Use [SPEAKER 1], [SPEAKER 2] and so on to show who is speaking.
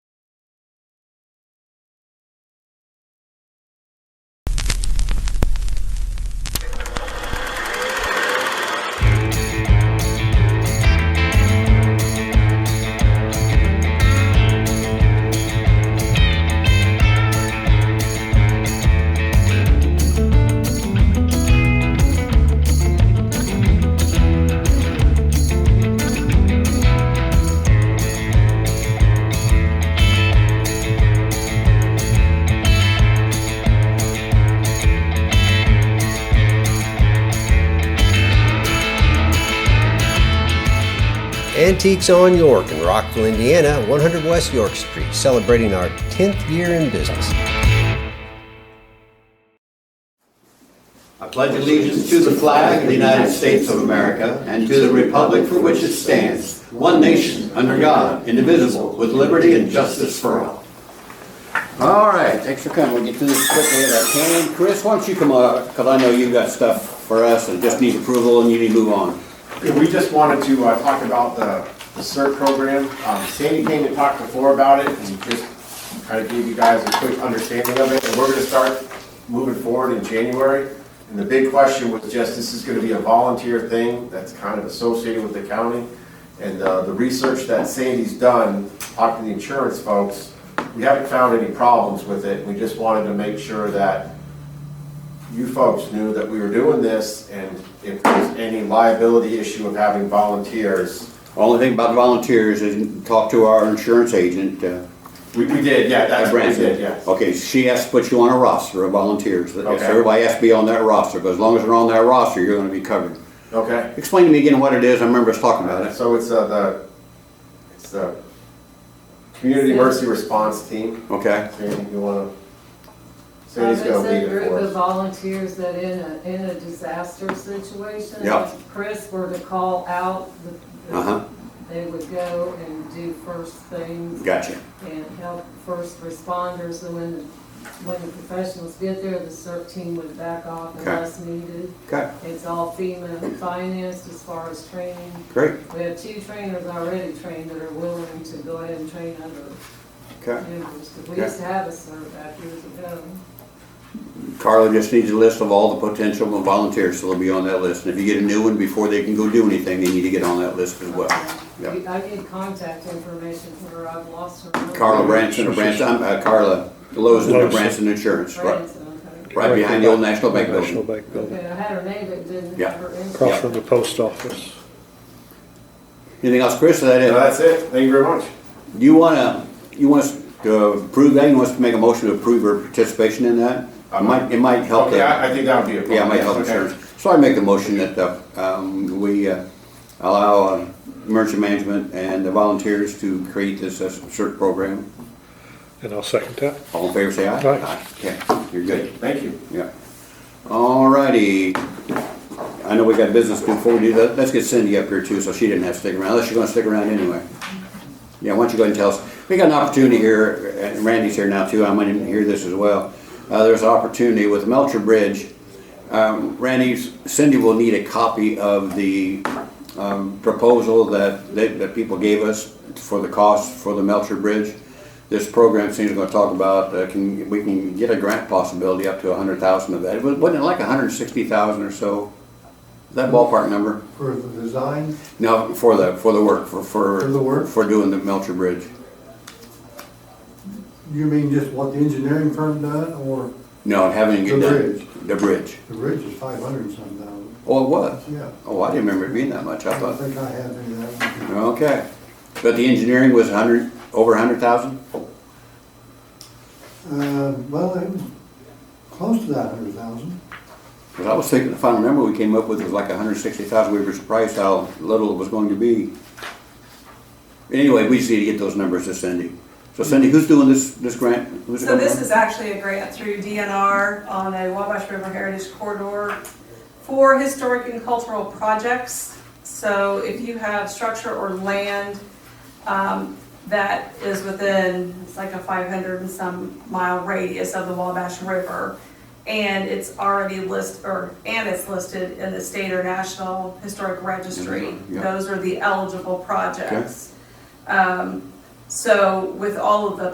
[SPEAKER 1] Antiques on York in Rockville, Indiana, 100 West York Street, celebrating our 10th year in business.
[SPEAKER 2] I pledge allegiance to the flag of the United States of America and to the republic for which it stands, one nation, under God, indivisible, with liberty and justice for all. All right, thanks for coming. We'll get through this quickly as I can. Chris, why don't you come up, because I know you've got stuff for us and just need approval and you need to move on.
[SPEAKER 3] Yeah, we just wanted to uh, talk about the the CERT program. Um, Sandy came and talked before about it and just kind of gave you guys a quick understanding of it. And we're gonna start moving forward in January. And the big question was just, this is gonna be a volunteer thing that's kind of associated with the county. And uh, the research that Sandy's done, talked to the insurance folks, we haven't found any problems with it. We just wanted to make sure that you folks knew that we were doing this, and if there's any liability issue of having volunteers,
[SPEAKER 2] Only thing about volunteers is talk to our insurance agent, uh,
[SPEAKER 3] we, we did, yeah, that's what we
[SPEAKER 2] Branson.
[SPEAKER 3] did, yeah.
[SPEAKER 2] Okay, she has to put you on a roster of volunteers. So
[SPEAKER 3] Okay.
[SPEAKER 2] Everybody has to be on that roster, but as long as they're on that roster, you're gonna be covered.
[SPEAKER 3] Okay,
[SPEAKER 2] Explain to me again what it is. I remember us talking about it.
[SPEAKER 3] so it's uh, the, it's the Community Mercy Response Team.
[SPEAKER 2] Okay,
[SPEAKER 3] Sandy, you wanna,
[SPEAKER 4] Um,
[SPEAKER 3] Sandy's gonna lead
[SPEAKER 4] It's a
[SPEAKER 3] it
[SPEAKER 4] group
[SPEAKER 3] for
[SPEAKER 4] of
[SPEAKER 3] us.
[SPEAKER 4] volunteers that in a, in a disaster situation.
[SPEAKER 2] Yeah.
[SPEAKER 4] if Chris were to call out, the-
[SPEAKER 2] Uh-huh.
[SPEAKER 4] they would go and do first things
[SPEAKER 2] gotcha.
[SPEAKER 4] and help first responders. And when, the- when the professionals get there, the CERT team would back off
[SPEAKER 2] Okay.
[SPEAKER 4] unless needed.
[SPEAKER 2] Okay,
[SPEAKER 4] It's all FEMA financed as far as training.
[SPEAKER 2] great,
[SPEAKER 4] We have two trainers already trained that are willing to go ahead and train other
[SPEAKER 2] okay.
[SPEAKER 4] members. 'Cause We
[SPEAKER 2] Okay.
[SPEAKER 4] used to have a CERT back years ago.
[SPEAKER 2] Carla just needs a list of all the potential volunteers, so they'll be on that list. And if you get a new one before they can go do anything, they need to get on that list as well. Yeah.
[SPEAKER 4] I get contact information for her, I've lost her. number.
[SPEAKER 2] Carla Branson of Branson, uh, Carla Lozen of Branson Insurance, right,
[SPEAKER 4] Branson, okay.
[SPEAKER 2] right behind the old National Bank
[SPEAKER 5] National
[SPEAKER 2] building.
[SPEAKER 5] Bank building,
[SPEAKER 4] Okay, I had her name, but didn't
[SPEAKER 2] Yeah.
[SPEAKER 4] have her
[SPEAKER 5] across
[SPEAKER 4] info.
[SPEAKER 5] from the post office.
[SPEAKER 2] Anything else, Chris? Is that
[SPEAKER 3] So
[SPEAKER 2] it?
[SPEAKER 3] that's it, thank you very much.
[SPEAKER 2] You wanna, you want us to approve that? You want us to make a motion to approve her participation in that? It might, it might help
[SPEAKER 3] Okay,
[SPEAKER 2] that.
[SPEAKER 3] I, I think that would be a problem.
[SPEAKER 2] Yeah, my health
[SPEAKER 3] yes, okay.
[SPEAKER 2] insurance. So I make the motion that uh, um, we uh, allow uh, emergency management and the volunteers to create this uh, CERT program.
[SPEAKER 5] And I'll second that.
[SPEAKER 2] All in favor, say aye.
[SPEAKER 5] Aye.
[SPEAKER 2] Yeah, you're good,
[SPEAKER 3] Thank you.
[SPEAKER 2] yeah. All righty. I know we got business before we do that. Let's get Cindy up here too, so she didn't have to stick around, unless you're gonna stick around anyway. Yeah, why don't you go ahead and tell us, we got an opportunity here, and Randy's here now too, I might even hear this as well. Uh, there's an opportunity with Melcher Bridge. Um, Randy, Cindy will need a copy of the, um, proposal that, that, that people gave us for the cost for the Melcher Bridge. This program Cindy's gonna talk about, uh, can, we can get a grant possibility up to a hundred thousand of that. It wa- Wasn't it like a hundred and sixty thousand or so? Is That ballpark number?
[SPEAKER 6] For the design,
[SPEAKER 2] No, for the, for the work, for, for.
[SPEAKER 6] For the work?
[SPEAKER 2] For doing the Melcher Bridge.
[SPEAKER 6] you mean just what the engineering firm done, or
[SPEAKER 2] No, having it
[SPEAKER 6] The
[SPEAKER 2] done.
[SPEAKER 6] bridge.
[SPEAKER 2] The bridge.
[SPEAKER 6] the bridge is five hundred and some thousand?
[SPEAKER 2] Oh, it was?
[SPEAKER 6] Yeah,
[SPEAKER 2] Oh, I didn't remember it being that much, I
[SPEAKER 6] I don't
[SPEAKER 2] thought,
[SPEAKER 6] think I have any of that.
[SPEAKER 2] okay. But the engineering was a hundred, over a hundred thousand?
[SPEAKER 6] Uh, well, it was close to that hundred thousand.
[SPEAKER 2] Because I was thinking, if I remember, we came up with it was like a hundred sixty thousand, we were surprised how little it was going to be. Anyway, we just need to get those numbers to Cindy. So Cindy, who's doing this, this grant? Who's it
[SPEAKER 7] So
[SPEAKER 2] coming
[SPEAKER 7] this
[SPEAKER 2] from?
[SPEAKER 7] is actually a grant through DNR on a Wabash River Heritage Corridor for historic and cultural projects. So if you have structure or land um, that is within, it's like a 500 and some mile radius of the Wabash River, and it's already listed, or, and it's listed in the state or national historic registry,
[SPEAKER 2] Yeah.
[SPEAKER 7] those are the eligible projects. Um, So with all of the